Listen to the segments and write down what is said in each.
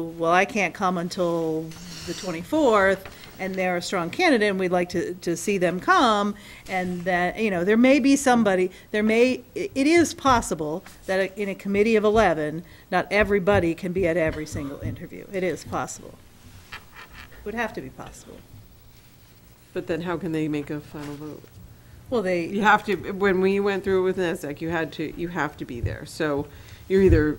well, I can't come until the 24th, and they're a strong candidate, and we'd like to, to see them come, and that, you know, there may be somebody, there may, i- it is possible that in a committee of 11, not everybody can be at every single interview. It is possible. Would have to be possible. But then how can they make a final vote? Well, You they, have to, when we went through with NASDAQ, you had to, you have to be there. So you're either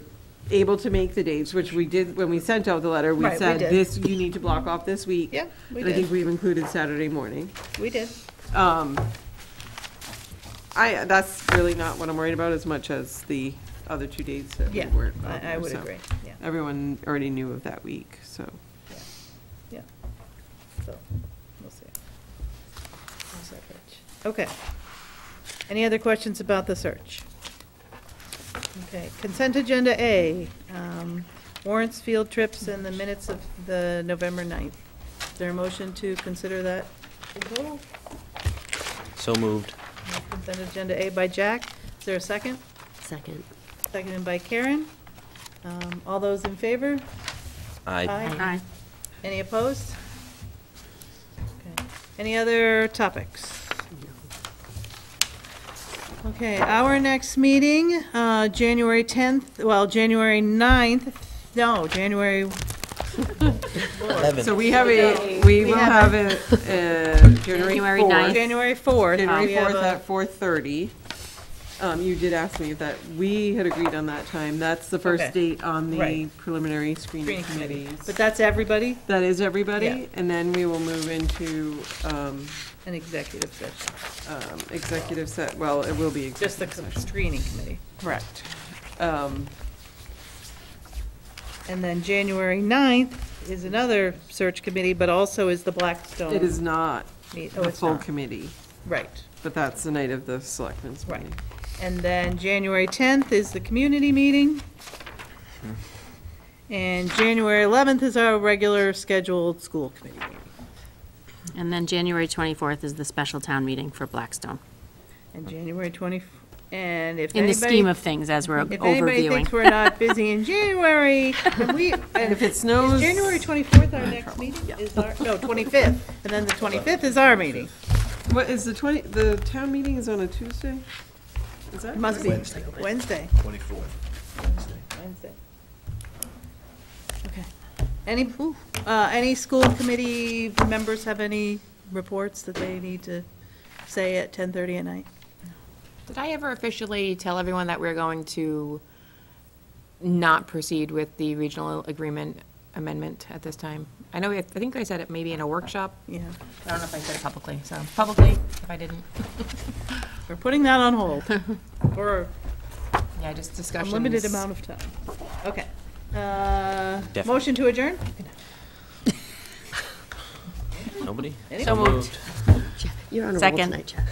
able to make the dates, which we did, when we sent out the letter, we Right, we said, did. this, you need to block off this week. Yeah, we And I think did. we've included Saturday morning. we did. Um, I, that's really not what I'm worried about as much as the other two dates that we Yeah, weren't. on I, I there, would so. agree, yeah, Everyone already knew of that week, so. yeah. So, we'll see. How's that pitch? Okay. Any other questions about the search? Okay, consent agenda A, um, warrants, field trips, and the minutes of the November 9th. Is there a motion to consider that? in total? So moved. Consent agenda A by Jack. Is there a second? Second. Seconded by Karen. Um, All those in favor? I Aye. Any opposed? Okay. Any other topics? Okay, our next meeting, uh, January 10th, well, January 9th, no, January, So Eleven. we have a, we We will have have a, uh, January January 4th. ninth. January 4th. January we have fourth a- at four thirty. Um, you did ask me if that, we had agreed on that time. That's the Okay. first date on the Right. preliminary Screening screening committee. But committees. that's everybody, That is Yeah. everybody, and then we will move into, um, an executive session, um, executive set, well, it will be just the executive co- session. screening committee. Correct. Um, And then January 9th is another search committee, but also is the Blackstone. it is not meet- Oh, the it's full not, committee, right. but that's the night of the selectmen's Right. meeting. And then January 10th is the community meeting. And January 11th is our regular scheduled school committee meeting. And then January 24th is the special town meeting for Blackstone. And January 20, and if In the scheme anybody, of things, as we're if anybody overviewing. thinks we're not busy in January, and we, And and if it is snows. January 24th our next meeting? Is our, no, 25th, and then the 25th is our meeting. What, is the twenty, the town meeting is on a Tuesday? Is that? It must be Wednesday. Wednesday, Twenty-fourth, Wednesday. Wednesday. Okay. Any, uh, any school committee members have any reports that they need to say at 10:30 at night? Did I ever officially tell everyone that we're going to not proceed with the regional agreement amendment at this time? I know, we- I think I said it maybe in a workshop. Yeah, I don't know if I said it publicly, so publicly, if I didn't. we're putting that on hold for Yeah, just a discussions. limited amount of time. Okay. Uh, Definitely. Motion to adjourn? Nobody? Anybody? So moved. Moved. Second.